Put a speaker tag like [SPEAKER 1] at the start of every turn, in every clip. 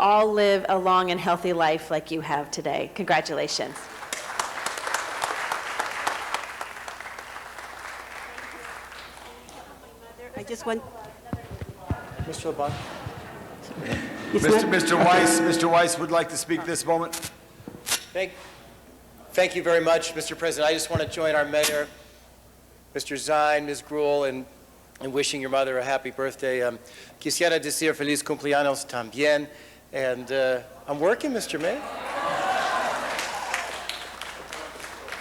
[SPEAKER 1] all live a long and healthy life like you have today. Congratulations.
[SPEAKER 2] I just want,
[SPEAKER 3] Mr. LeBlanc?
[SPEAKER 2] it's
[SPEAKER 4] Mr.
[SPEAKER 2] not-
[SPEAKER 4] Mr. Weiss, Mr. Weiss would like to speak this moment.
[SPEAKER 3] Thank, thank you very much, Mr. President. I just want to join our mayor, Mr. Zine, Ms. Gruel, in, in wishing your mother a happy birthday. Um, Quisiera decir feliz cumpleaños también. And uh, I'm working, Mr. Mayor.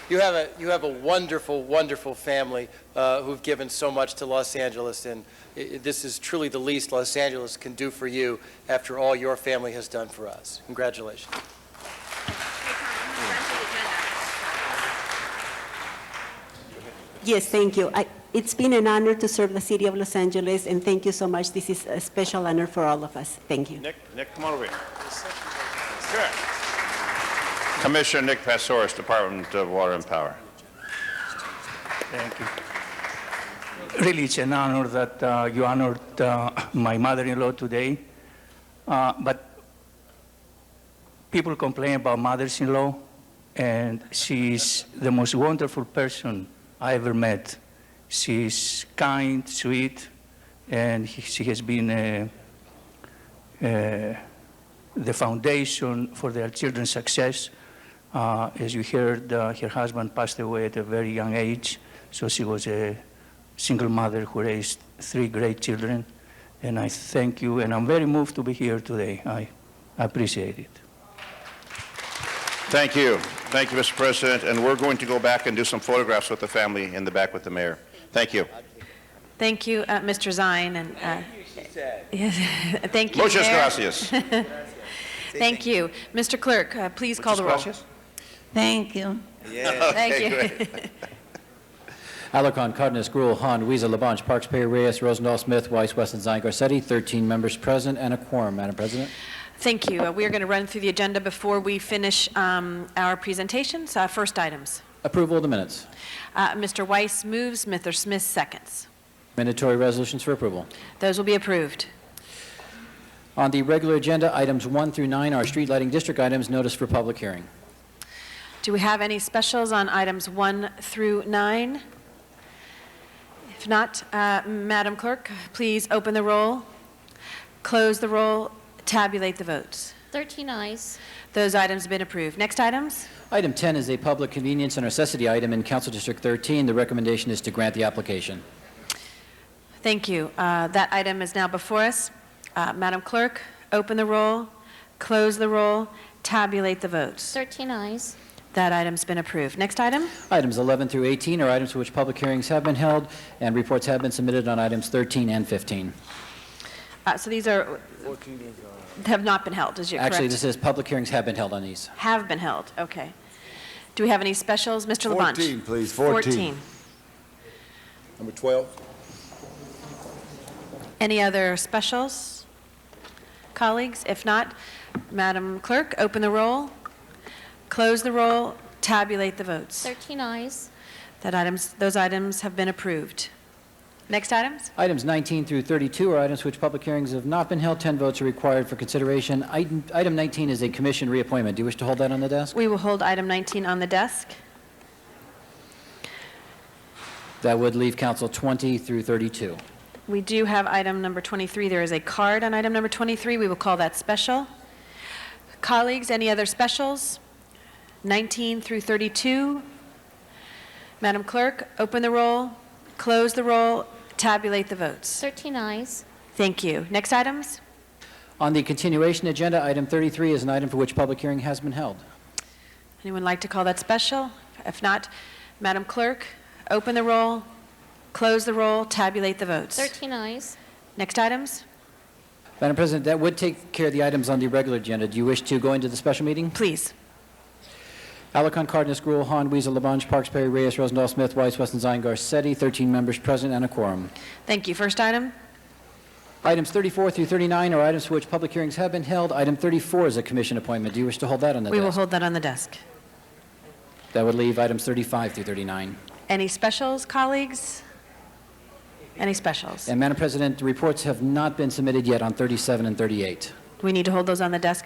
[SPEAKER 3] You have a, you have a wonderful, wonderful family uh, who've given so much to Los Angeles, and i- i- this is truly the least Los Angeles can do for you after all your family has done for us. Congratulations.
[SPEAKER 2] yes, thank you. I- It's been an honor to serve the city of Los Angeles, and thank you so much. This is a special honor for all of us. Thank you.
[SPEAKER 5] Nick, Nick, come on over here. Sure. Commissioner Nick Passoris, Department of Water and Power.
[SPEAKER 6] Thank you. Really, it's an honor that uh, you honored uh, my mother-in-law today. Uh, But people complain about mothers-in-law, and she's the most wonderful person I ever met. She's kind, sweet, and she has been uh, uh, the foundation for their children's success. Uh, as you heard, uh, her husband passed away at a very young age, so she was a single mother who raised three great children. And I thank you, and I'm very moved to be here today. I appreciate it.
[SPEAKER 5] Thank you. Thank you, Mr. President, and we're going to go back and do some photographs with the family in the back with the mayor. Thank you.
[SPEAKER 1] Thank you, uh, Mr. Zine, and uh, yes, thank you,
[SPEAKER 5] Muchas
[SPEAKER 1] Mayor.
[SPEAKER 5] gracias.
[SPEAKER 1] Thank you, Mr. Clerk. Uh, please call the roll.
[SPEAKER 5] Muchas gracias.
[SPEAKER 7] Thank you.
[SPEAKER 1] Thank
[SPEAKER 5] Okay,
[SPEAKER 1] you.
[SPEAKER 5] great.
[SPEAKER 8] Alarcon, Cardenas, Gruel, Han, Weezer, Labange, Parks, Perry, Reyes, Rosendahl, Smith, Weiss, Weston, Zine, Garcetti, 13 members present and a quorum, Madam President.
[SPEAKER 1] Thank you. Uh, we are going to run through the agenda before we finish um, our presentations. Uh, first items.
[SPEAKER 8] Approval of the minutes.
[SPEAKER 1] Uh, Mr. Weiss moves, Mr. Smith seconds.
[SPEAKER 8] Mandatory resolutions for approval.
[SPEAKER 1] Those will be approved.
[SPEAKER 8] On the regular agenda, items 1 through 9 are street lighting district items, notice for public hearing.
[SPEAKER 1] Do we have any specials on items one through nine? If not, uh, Madam Clerk, please open the roll, close the roll, tabulate the votes.
[SPEAKER 9] 13 eyes.
[SPEAKER 1] Those items have been approved. Next items?
[SPEAKER 8] Item 10 is a public convenience and necessity item in Council District 13. The recommendation is to grant the application.
[SPEAKER 1] Thank you. Uh, That item is now before us. Uh, Madam Clerk, open the roll, close the roll, tabulate the votes.
[SPEAKER 9] 13 eyes.
[SPEAKER 1] That item's been approved. Next item?
[SPEAKER 8] Items 11 through 18 are items for which public hearings have been held, and reports have been submitted on items 13 and 15.
[SPEAKER 1] Uh, So these are, have not been held, is you correct?
[SPEAKER 8] Actually, this is, public hearings have been held on these.
[SPEAKER 1] Have been held, okay. Do we have any specials? Mr. Labange?
[SPEAKER 4] 14, please, 14. Number 12.
[SPEAKER 1] Any other specials? Colleagues, if not, Madam Clerk, open the roll, close the roll, tabulate the votes.
[SPEAKER 9] 13 eyes.
[SPEAKER 1] That items, those items have been approved. Next items?
[SPEAKER 8] Items 19 through 32 are items which public hearings have not been held. 10 votes are required for consideration. Item item 19 is a commission reappointment. Do you wish to hold that on the desk?
[SPEAKER 1] We will hold item 19 on the desk.
[SPEAKER 8] That would leave council 20 through 32.
[SPEAKER 1] We do have item number 23. There is a card on item number 23. We will call that special. Colleagues, any other specials? 19 through 32. Madam Clerk, open the roll, close the roll, tabulate the votes.
[SPEAKER 9] 13 eyes.
[SPEAKER 1] Thank you. Next items?
[SPEAKER 8] On the continuation agenda, item 33 is an item for which public hearing has been held.
[SPEAKER 1] Anyone like to call that special? If not, Madam Clerk, open the roll, close the roll, tabulate the votes.
[SPEAKER 9] 13 eyes.
[SPEAKER 1] Next items?
[SPEAKER 8] Madam President, that would take care of the items on the regular agenda. Do you wish to go into the special meeting?
[SPEAKER 1] Please.
[SPEAKER 8] Alarcon, Cardenas, Gruel, Han, Weezer, Labange, Parks, Perry, Reyes, Rosendahl, Smith, Weiss, Weston, Zine, Garcetti, 13 members present and a quorum.
[SPEAKER 1] Thank you. First item?
[SPEAKER 8] Items 34 through 39 are items for which public hearings have been held. Item 34 is a commission appointment. Do you wish to hold that on the
[SPEAKER 1] We will
[SPEAKER 8] desk?
[SPEAKER 1] hold that on the desk.
[SPEAKER 8] That would leave items 35 through 39.
[SPEAKER 1] Any specials, colleagues? Any specials?
[SPEAKER 8] And Madam President, the reports have not been submitted yet on 37 and 38.
[SPEAKER 10] Do we need to hold those on the desk